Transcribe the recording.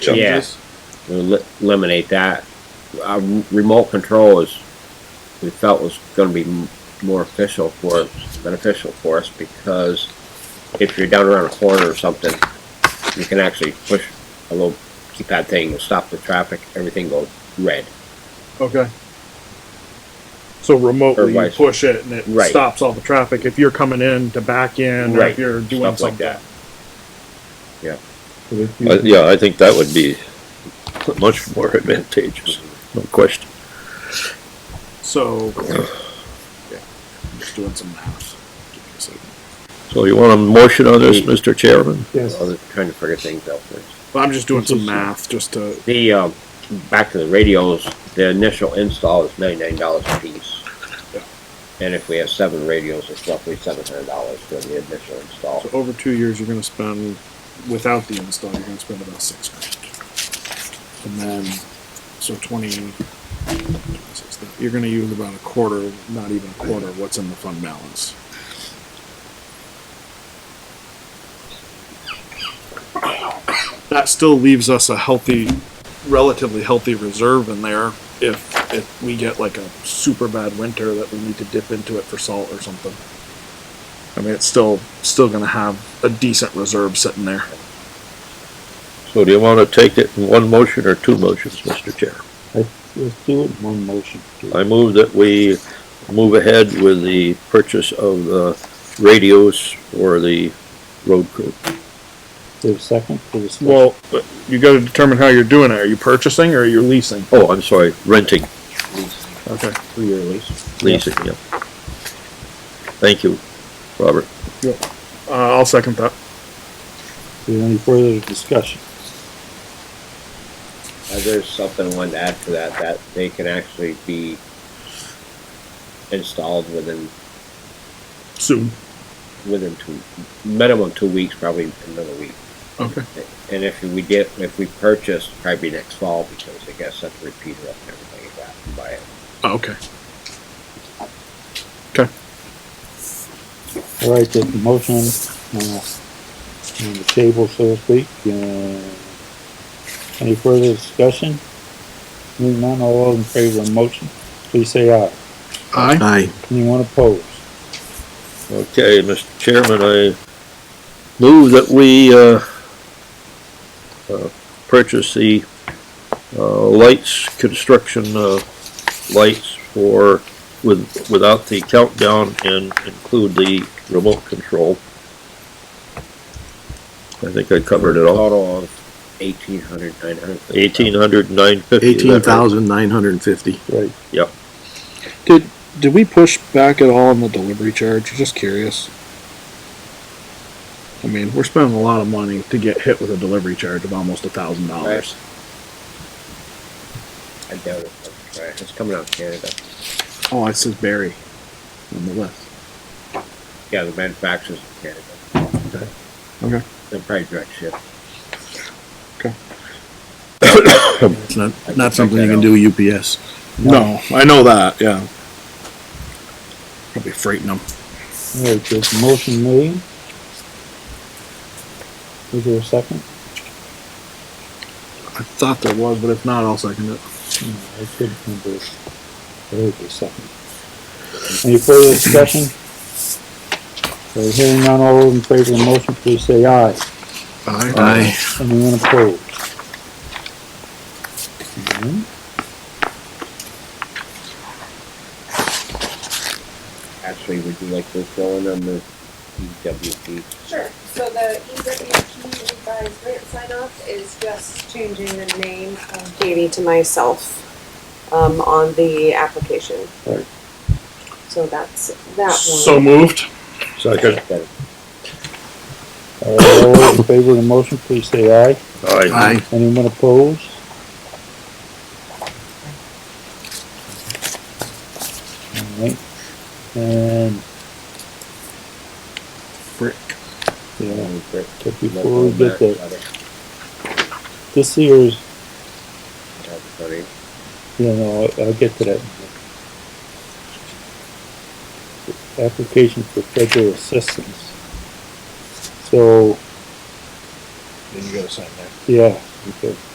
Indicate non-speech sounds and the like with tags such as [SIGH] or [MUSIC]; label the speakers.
Speaker 1: changes.
Speaker 2: We'll eliminate that. Uh, remote control is, we felt was gonna be m- more official for, beneficial for us because if you're down around a corner or something, you can actually push a little keypad thing to stop the traffic, everything goes red.
Speaker 1: Okay. So
Speaker 2: Or
Speaker 1: remotely you
Speaker 2: vice-
Speaker 1: push it and it
Speaker 2: Right.
Speaker 1: stops all the traffic if you're coming in to back in or
Speaker 2: Right.
Speaker 1: if you're doing
Speaker 2: Stuff like
Speaker 1: something.
Speaker 2: that.
Speaker 3: I- Uh, Yeah, I think that would be much more [LAUGHS] advantageous, no question.
Speaker 1: So, yeah, I'm just doing some math. Give me a second.
Speaker 3: So you want a motion on this, Mr. Chairman?
Speaker 2: I was trying to figure things out first.
Speaker 1: But I'm just doing some math just to,
Speaker 2: The, um, back to the radios, the initial install is ninety-nine dollars a piece. And if we have seven radios, it's roughly seven hundred dollars for the initial install.
Speaker 1: so over two years, you're gonna spend, without the install, you're gonna spend about six grand. And then, so twenty, you're gonna use about a quarter, not even a quarter, of what's in the fund balance. That still leaves us a healthy, relatively healthy reserve in there if, if we get like a super bad winter that we need to dip into it for salt or something. I mean, it's still still going to have a decent reserve sitting there.
Speaker 3: So do you want to take it in one motion or two motions, Mr. Chair?
Speaker 4: Let's do it in one motion.
Speaker 3: I move that we move ahead with the purchase of the radios for the road crew.
Speaker 4: There's a second for the.
Speaker 1: Well, but you got to determine how you're doing it. Are you purchasing or are you leasing?
Speaker 3: Oh, I'm sorry, renting,
Speaker 1: Okay.
Speaker 2: Three-year lease.
Speaker 3: leasing, yeah. Thank you, Robert.
Speaker 1: Uh, I'll second that.
Speaker 4: Is there any further discussion?
Speaker 2: Uh, there's something I wanted to add to that, that they can actually be installed within,
Speaker 1: Soon.
Speaker 2: within two, minimum two weeks, probably another week.
Speaker 1: Okay.
Speaker 2: And if we get, if we purchase, probably next fall, because I guess that's a repeater up and everything like that, and buy it.
Speaker 1: Oh, okay.
Speaker 4: All right, the motion, uh, on the table, so to speak, uh, any further discussion? Hearing none, all those in favor of the motion, please say aye.
Speaker 1: Aye.
Speaker 4: Anyone opposed?
Speaker 3: Okay, Mr. Chairman, I move that we, uh, uh, purchase the, uh, lights, construction, uh, lights for, with, without the countdown and include the remote control. I think I covered it all.
Speaker 2: Total of eighteen hundred, nine hundred.
Speaker 3: Eighteen hundred nine fifty.
Speaker 5: Eighteen thousand nine hundred and fifty.
Speaker 4: Right,
Speaker 1: Did did we push back at all on the delivery charge? Just curious. I mean, we're spending a lot of money to get hit with a delivery charge of almost a thousand dollars.
Speaker 2: I doubt it, but, right, it's coming out of Canada.
Speaker 1: Oh, it says Barry on the list.
Speaker 2: Yeah, the manufacturers in Canada.
Speaker 1: Okay.
Speaker 2: They're probably direct ship.
Speaker 5: It's not, not something you can do UPS.
Speaker 1: No, I know that. Yeah. Probably freighting them.
Speaker 4: all right, there's a motion made. Is there a second?
Speaker 1: I thought there was, but if not, I'll second it.
Speaker 4: No, I couldn't remember. There was a second. Any further discussion? So hearing none, all those in favor of the motion, please say aye.
Speaker 5: Aye.
Speaker 4: Anyone opposed? None?
Speaker 2: Actually, would you like to fill in on the E EWP?
Speaker 6: Sure, so the EWP revised grant sign off is just changing the name of Katie to myself, um, on the application.
Speaker 4: Right.
Speaker 6: So that's that one.
Speaker 1: So moved.
Speaker 3: Second.
Speaker 2: That-
Speaker 4: All right, all those in favor of the motion, please say aye.
Speaker 3: Aye.
Speaker 4: Anyone opposed? All right, and,
Speaker 1: Brick.
Speaker 4: yeah,
Speaker 2: that was great.
Speaker 4: but before we get there,
Speaker 2: Another-
Speaker 4: this here is
Speaker 2: another thirty.
Speaker 4: Yeah, no, I'll, I'll get to that. in a minute. Application for federal assistance. So,
Speaker 1: Then you gotta sign
Speaker 4: yeah, okay.